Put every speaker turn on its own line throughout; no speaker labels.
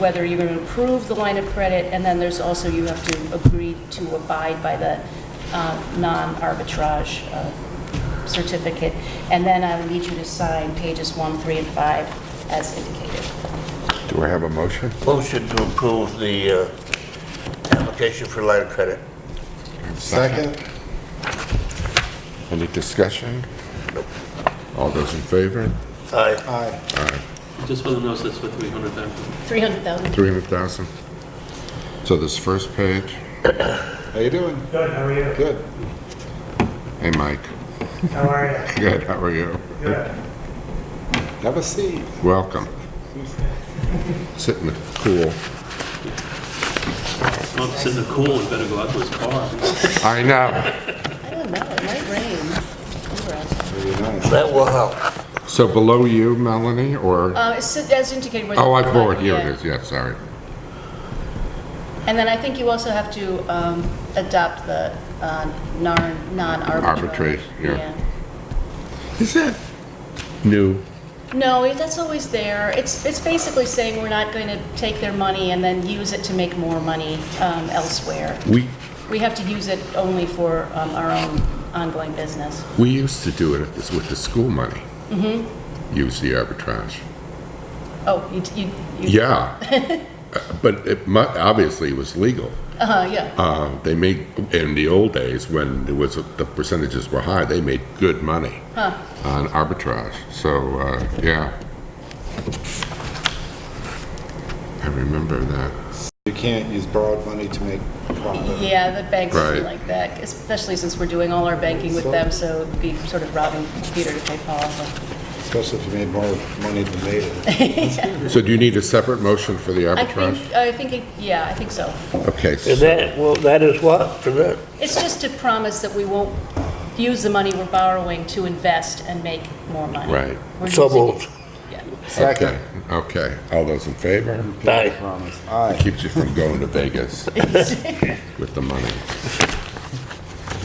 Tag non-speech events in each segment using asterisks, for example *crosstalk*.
whether you're going to approve the line of credit, and then there's also, you have to agree to abide by the uh, non-arbitrage uh, certificate. And then I will need you to sign pages one, three, and five as indicated.
Do I have a motion?
Motion to approve the uh, application for line of credit.
Second. Any discussion? All those in favor?
Aye.
Aye.
Just for the notice, that's for 300,000.
300,000.
300,000. So this first page,
How you doing?
Good, how are you?
Good.
hey, Mike. *laughs*
How are you?
Good, how are you?
Good.
Have a seat.
*laughs* Welcome. Sit in the cool.
Well, if it's in the cool, we better go out to his car.
I know.
I don't know, it might rain.
Very nice.
That will help. Uh,
So below you, Melanie, or?
Uh, it's As indicated. where the-
Oh, I forward, here it
Yeah.
is, yeah, sorry.
And then I think you also have to um, adopt the uh, non- non-arbitrary.
Arbitrage, yeah. Is that new?
No, it- that's always there. It's, it's basically saying we're not going to take their money and then use it to make more money um, elsewhere.
We,
We have to use it only for um, our own ongoing business.
we used to do it at this- with the school money.
Mm-hmm.
Use the arbitrage.
Oh, you, you, you-
Yeah. *laughs* Uh, But it mu, obviously was legal.
uh-huh, yeah.
Uh, they made, in the old days, when there was, the percentages were high, they made good money on arbitrage. So, uh, yeah. I remember that.
You can't use borrowed money to make profit.
Yeah, the banks feel
Right.
like that, especially since we're doing all our banking with them, so it'd be sort of robbing Peter to pay Paul.
Especially if you made more money than they did.
So do you need a separate motion for the
I
arbitrage?
think, I think, it- yeah, I think so.
Okay,
And
so
that, well, that is what for that?
It's just to promise that we won't use the money we're borrowing to invest and make more money.
Right.
We're
So
using it-
moved.
yeah.
Okay, okay. All those in favor?
Aye.
Promise. Aye.
Keeps you from going
*laughs*
to Vegas with the money.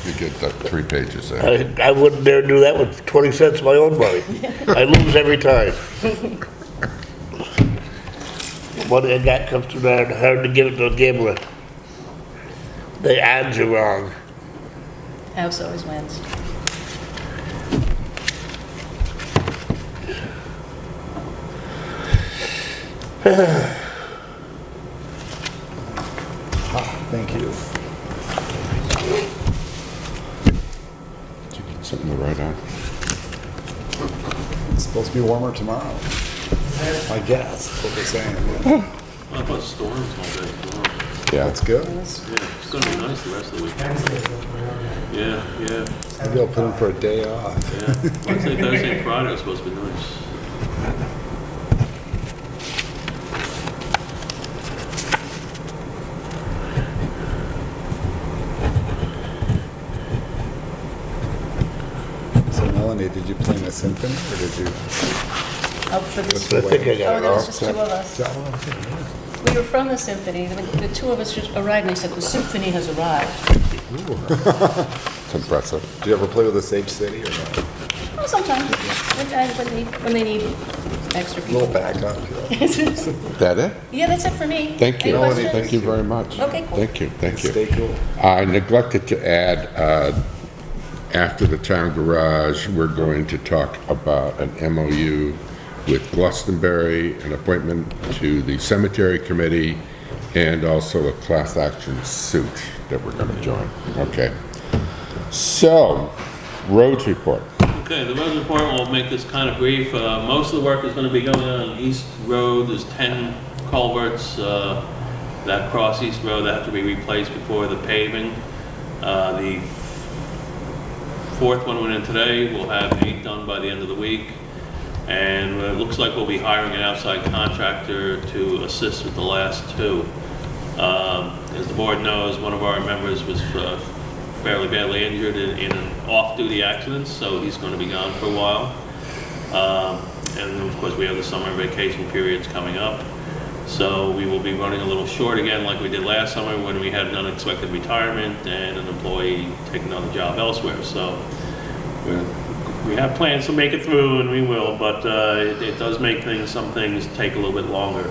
You get the three pages there.
I I wouldn't dare do that with 20 cents of my own money. I lose every time. Money I got comes too hard, hard to give it to a gambler. The odds are wrong.
House always wins.
Thank you.
Something to write on.
It's supposed to be warmer tomorrow. I guess, that's what they're saying.
I thought storms all day tomorrow.
Yeah.
That's good.
Yeah, it's gonna be nice the rest of the week. Yeah, yeah,
Maybe I'll put in for a day off.
yeah. Wednesday, Thursday, and Friday are supposed to be nice.
So Melanie, did you play my symphony or did you?
Oh, for this,
I think
oh,
I got it
there
wrong.
was just two of us. We were from the symphony, the the two of us just arrived, and they said, "The symphony has arrived."
It's impressive.
Did you ever play with the Sage City or not?
Well, Oh, sometimes, when I- when they, when they need extra
A little
people. *laughs*
backup. you know.
That it?
Yeah, that's it for me.
Thank you.
Any questions?
Thank you very much.
Okay, cool.
Thank you, thank you.
Stay cool.
I neglected to add, uh, after the town garage, we're going to talk about an MOU with Glastonbury, an appointment to the cemetery committee, and also a class action suit that we're going to join. Okay. So, roads report.
Okay, the road report will make this kind of brief. Uh, Most of the work is going to be going on on East Road. There's 10 culverts uh, that cross East Road that have to be replaced before the paving. Uh, The fourth one went in today. We'll have eight done by the end of the week. And it looks like we'll be hiring an outside contractor to assist with the last two. Um, As the board knows, one of our members was uh, fairly badly injured in in an off-duty accident, so he's going to be gone for a while. Um, And then, of course, we have the summer vacation periods coming up, so we will be running a little short again like we did last summer when we had an unexpected retirement and an employee take another job elsewhere. So we're- we have plans to make it through, and we will, but uh, it it does make things, some things take a little bit longer.